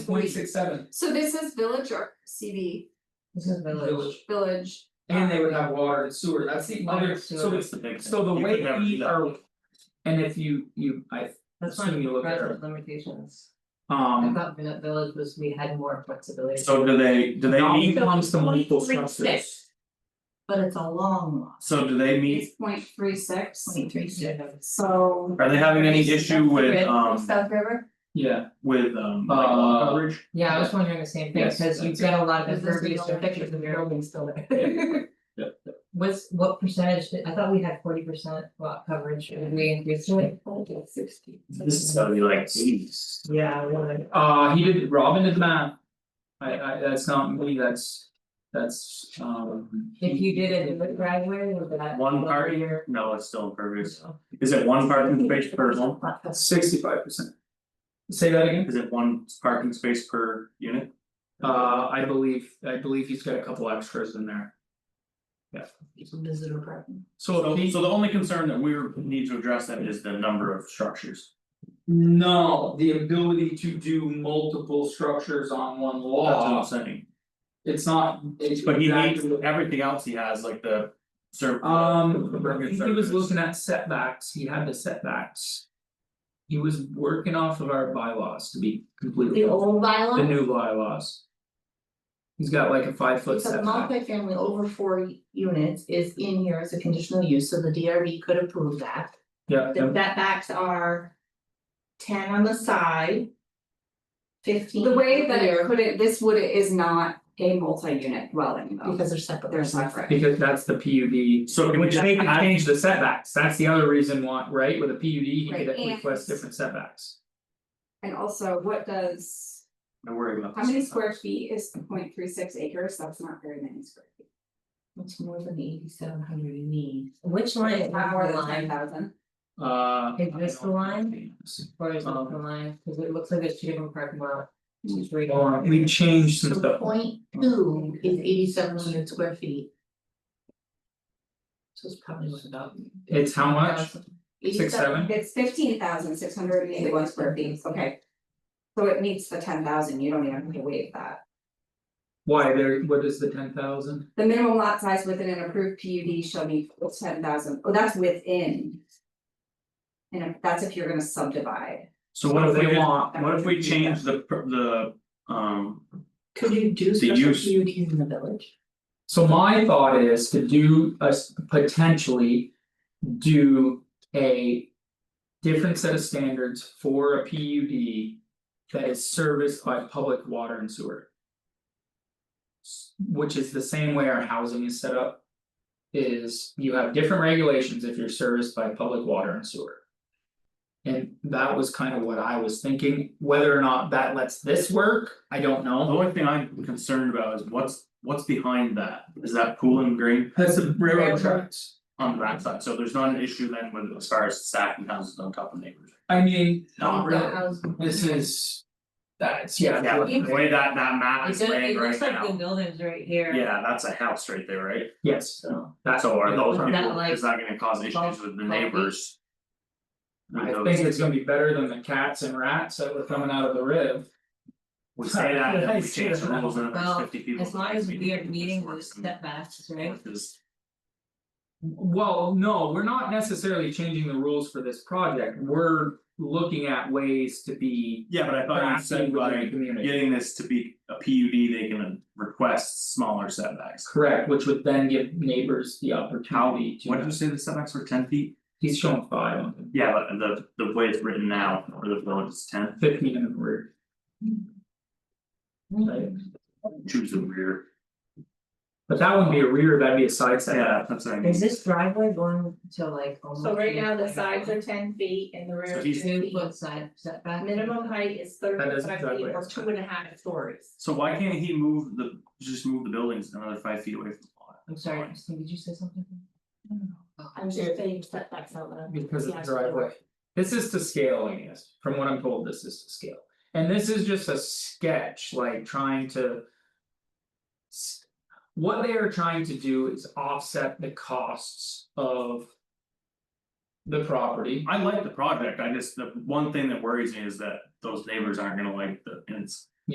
week. Twenty-six seven, So this is village or CD, This is village. village, village, and they would have water and sewer, that's the other, so it's, the big so the thing. You could way never do we that. are. And if you, you, I, That's one of Assuming you the look at her. present limitations. I um, thought vi- village was, we had more flexibility, So do they, do they Now meet, it comes to multiple 0.36. structures. but it's a long loss. so do they meet, it's point three six, Yeah. so. are they having any issue with um South River? Yeah, with um like lot Uh, coverage? Yeah, I was wondering the same thing, Yes, because you've that's got a lot of Is this the impervious only- pictures of your building still there. yeah, What's, what percentage, did- I thought we had forty percent lot coverage, and we increased it. Sixty. This is gonna be like eighties. Yeah, we wanna. uh, he did, Robin did the math. I I, that's not me, that's, that's, um. If you did it in the driveway, would that? One part party year. No, it's still impervious. Is it one parking space per home? Sixty-five percent. Say that again? Is it one parking space per unit? Uh, I believe, I believe he's got a couple extras in there. Visitor parking. So if he- So the only concern that we need to address then is the number of structures. No, the ability to do multiple structures on one That's what I'm law, saying, it's not, it's but he needs exactly- everything else he has, like the serv- Um, I impervious think he was surface. looking at setbacks, he had the setbacks. He was working off of our bylaws to be completely, The the old bylaw, new bylaws. He's got like a five foot if a setback, multifamily over four units is in here as a conditional use, so the DRB could approve that. yeah, The setbacks are ten on the side. Fifteen The way that it here, put it, this would is not a multi-unit dwelling though, because they're separate. they're separate. because that's the P U D. So can we Which just they could add- change the setbacks, that's the other reason why, right, with a PUD, he could Right, and- request different setbacks. And also, what does, I'm worried about. how many square feet is point three six acres, that's not very many square feet. It's more than eighty seven hundred you need. Which line is Not more than ten line, thousand, Uh. Is this the line? or is it Um, the line, because it looks like there's two different parking lot. two, three. Hold on, we changed some So stuff. point Oh. two is eighty seven hundred square feet. So it's probably what about. It's how much? Uh, 87 Six, seven? it's fifteen thousand six hundred and eighty one square feet, okay. So it meets the ten thousand, you don't even have to waive that. Why there, what is the ten thousand? The minimum lot size within an approved P U D shall be ten thousand. Oh, that's within. And if- that's if you're gonna subdivide, So what if we They did- want- what if we change the pr- the um, Could you do The special use. PUDs in the village? So my thought is to do a s- potentially do a. Different set of standards for a PUD that is serviced by public water and sewer. S- Which is the same way our housing is set up. Is you have different regulations if you're serviced by public water and sewer. And that was kind of what I was thinking, whether or not that lets this work, I don't know. the only thing I'm concerned about is what's what's behind that? Is that pool and green That's the railroad Railroad. tracks. on that side? So there's not an issue then with as far as stacking houses on top of neighbors. I mean, Not The really. house- This is. That's, yeah. Yeah, what- the way that that map It is does, laid it right looks like the now, buildings right here. yeah, that's a house right there, right? Yes, So, that's So all are right. those Is that people, like is that gonna cause issues twelve- with the twelve feet? neighbors? With I those- think it's gonna be better than the cats and rats that were coming out of the rib. We say that, and I then we see change the that. rules and there's Well, fifty people. as long as we are This meeting works those and setbacks, right? works is- Well, no, we're not necessarily changing the rules for this project, we're looking at ways to be. Yeah, but I thought you crafty said within the by community. getting this to be a PUD, they can request smaller setbacks. Correct, which would then give neighbors the opportunity to. What did you say the setbacks were ten feet? He's showing five on Yeah, but the the way it's written now, or the village is ten, the fifteen in the rear, right? choose the rear, But that wouldn't be a rear, that'd be a side setback. yeah, that's what I mean. Is this driveway going to like almost? So right now, the like- sides are ten feet and the rear So is he's- two Two feet. foot side setback. Minimum height is thirty That is five feet exactly or it. two and a half stories. So why can't he move the, just move the buildings another five feet away from the lot? I'm sorry, Christine, did you say something? I'm just saying setbacks out there. Because of the Yeah, so- driveway. This is to scale, I guess, from what I'm told, this is to scale, and this is just a sketch, like trying to. s- What they are trying to do is offset the costs of. The property, I like the project, I just, the one thing that worries me is that those neighbors aren't gonna like the, and it's